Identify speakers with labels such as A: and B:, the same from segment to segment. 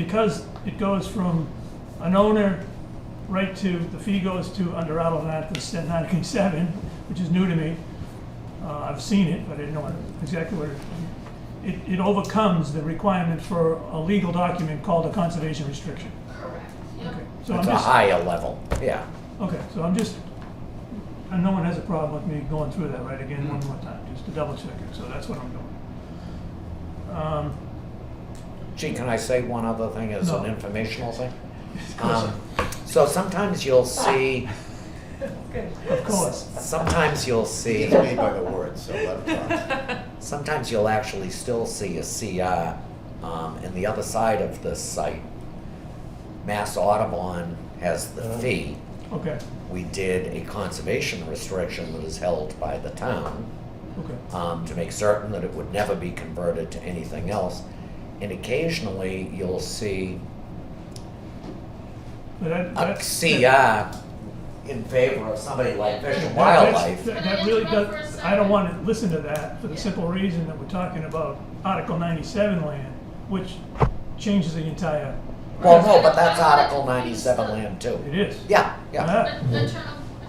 A: because it goes from an owner right to, the fee goes to under Article 997, which is new to me. Uh, I've seen it, but I didn't know what- exactly what it, it, it overcomes the requirement for a legal document called a conservation restriction.
B: Correct, yep.
A: Okay, So I'm
C: It's a
A: just,
C: higher level, yeah.
A: okay, so I'm just, and no one has a problem with me going through that right again one more time, just to double check it, so that's what I'm doing. Um,
C: Gee, can I say one other thing as
A: No.
C: an informational thing?
A: Of course, Ah,
C: Um, So sometimes you'll see,
A: of course,
C: sometimes you'll see,
D: It's made by the word, so let him talk.
C: sometimes you'll actually still see a CR um, in the other side of the site. Mass Audubon has the
A: Uh-huh.
C: fee.
A: okay,
C: We did a conservation restriction that is held by the town.
A: okay,
C: um, to make certain that it would never be converted to anything else. And occasionally, you'll see
A: but that,
C: a
A: that's.
C: CR uh, in favor of somebody like Fish and
A: That-
C: Wildlife.
A: that's- That
B: Can I
A: that really
B: interrupt for a
A: does, I
B: second?
A: don't want to listen to that for the
B: Yeah.
A: simple reason that we're talking about Article ninety-seven land, which changes the entire,
C: Well, no, but that's Article 97 land
A: it
C: too.
A: is.
C: Yeah, yeah.
A: Uh,
B: But Attorney,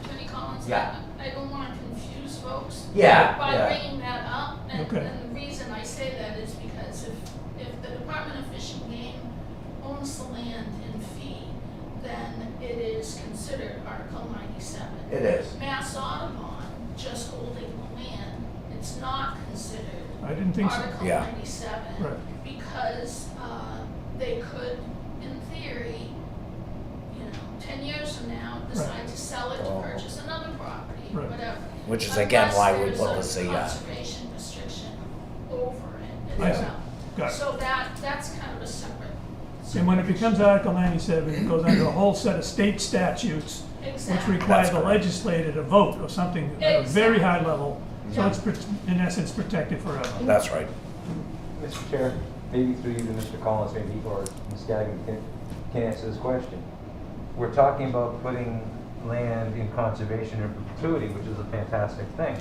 B: Attorney Collins,
C: Yeah.
B: I, I don't wanna confuse folks.
C: Yeah,
B: By
C: yeah.
B: bringing that up, and,
A: Okay.
B: and the reason I say that is because if, if the Department of Fish and Game owns the land in fee, then it is considered Article ninety-seven.
C: It is.
B: Mass Audubon, just holding the land, it's not considered
A: I didn't think so.
B: Article
C: Yeah.
B: ninety-seven.
A: Right.
B: Because, uh, they could, in theory, you know, ten years from now, decide to sell it to
D: Oh.
B: purchase another property,
A: Right.
B: whatever.
C: Which is again why we put uh, the
B: Unless there's a
C: CI.
B: conservation restriction over it as
A: Yeah.
B: well.
A: Got it.
B: So that, that's kind of a separate.
A: And when it becomes Article ninety-seven, it goes under a whole set of state statutes, which
B: Exactly.
A: require
C: That's
A: the
C: correct.
A: legislator to vote or something at a very high level. So
B: Yeah.
A: it's, pr- in essence, protected forever.
C: That's right.
E: Mr. Chair, maybe through you to Mr. Collins, maybe, or Ms. Gagnon can, can answer this question. We're talking about putting land in conservation in perpetuity, which is a fantastic thing.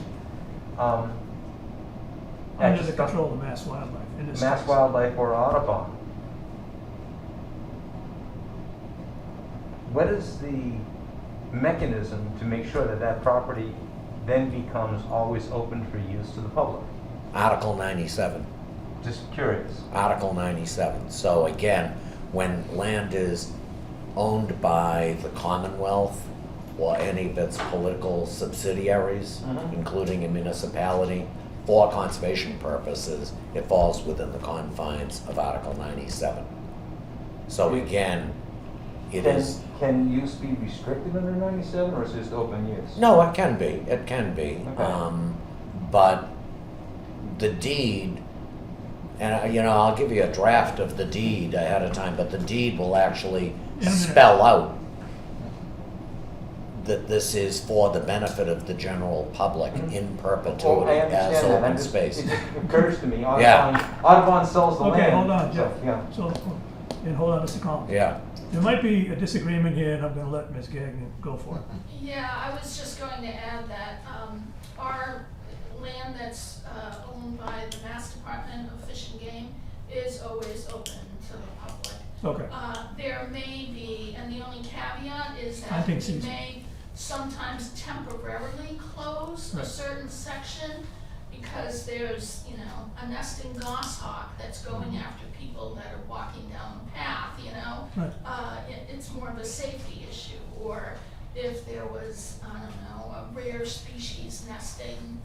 E: Um, that
A: Under the
E: just got-
A: control of mass wildlife in this
E: Mass
A: case.
E: Wildlife or Audubon. What is the mechanism to make sure that that property then becomes always open for use to the public?
C: Article 97.
E: Just curious.
C: Article 97. So again, when land is owned by the Commonwealth or any of its political subsidiaries,
E: Mhm.
C: including a municipality, for conservation purposes, it falls within the confines of Article 97. So again, it
E: Can-
C: is,
E: Can use be restricted under ninety-seven, or is it just open use?
C: no, it can be, it can be.
E: Okay.
C: Um, But the deed, and I- you know, I'll give you a draft of the deed ahead of time, but the deed will actually
A: In a minute.
C: spell out that this is for the benefit of the general public
E: Mhm.
C: in
E: Oh,
C: perpetuity
E: I
C: as
E: understand that, I'm
C: open
E: just-
C: space.
E: It just occurs to me,
C: Yeah.
E: Audubon, Audubon sells the land.
A: Okay, hold on,
E: so,
A: Jeff. So, and hold on, Mr. Collins.
C: Yeah,
A: There might be a disagreement here, and I'm gonna let Ms. Gagnon go for it.
B: Yeah, I was just going to add that, um, our land that's, uh, owned by the Mass Department of Fish and Game is always open to the public.
A: Okay,
B: Uh, there may be, and the only caveat is
A: I
B: that
A: think
B: we
A: so.
B: may sometimes temporarily close a
A: Right.
B: certain section because there's, you know, a nesting goshawk that's going after people that are walking down the path, you know?
A: Mm-hmm. Right.
B: Uh, it, it's more of a safety issue, or if there was, I don't know, a rare species nesting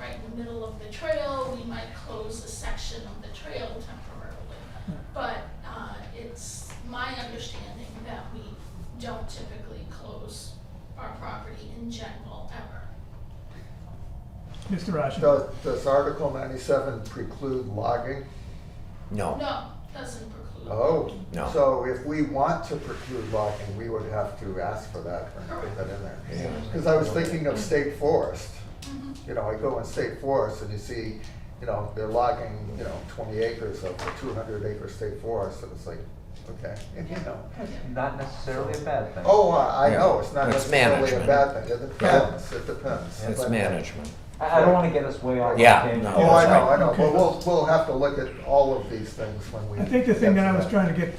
B: right in the middle of the trail, we might close a section of the trail temporarily. But, uh, it's my understanding that we don't typically close our property in general ever.
A: Mr. Ashen.
D: Does, does Article ninety-seven preclude logging?
C: no,
B: No, doesn't preclude.
D: Oh.
C: No.
D: So if we want to preclude logging, we would have to ask for that and put that in there.
C: Yeah.
D: Because I was thinking of state forest.
B: Mhm.
D: You know, I go in state forest and you see, you know, they're logging, you know, twenty acres of a two hundred acre state forest, and it's like, okay, you know.
E: Not necessarily a bad thing.
D: Oh, I I
C: Yeah.
D: know, it's not
C: It's
D: necessarily a
C: management.
D: bad thing, it depends, it depends.
C: it's
D: But-
C: management.
E: I, I don't wanna get us way off. on a
C: Yeah,
E: tangent.
C: no,
D: Oh, I know, I know,
A: Okay.
D: but we'll, we'll have to look at all of these things when we.
A: I think the thing
D: get
A: that
D: to
A: I was trying to get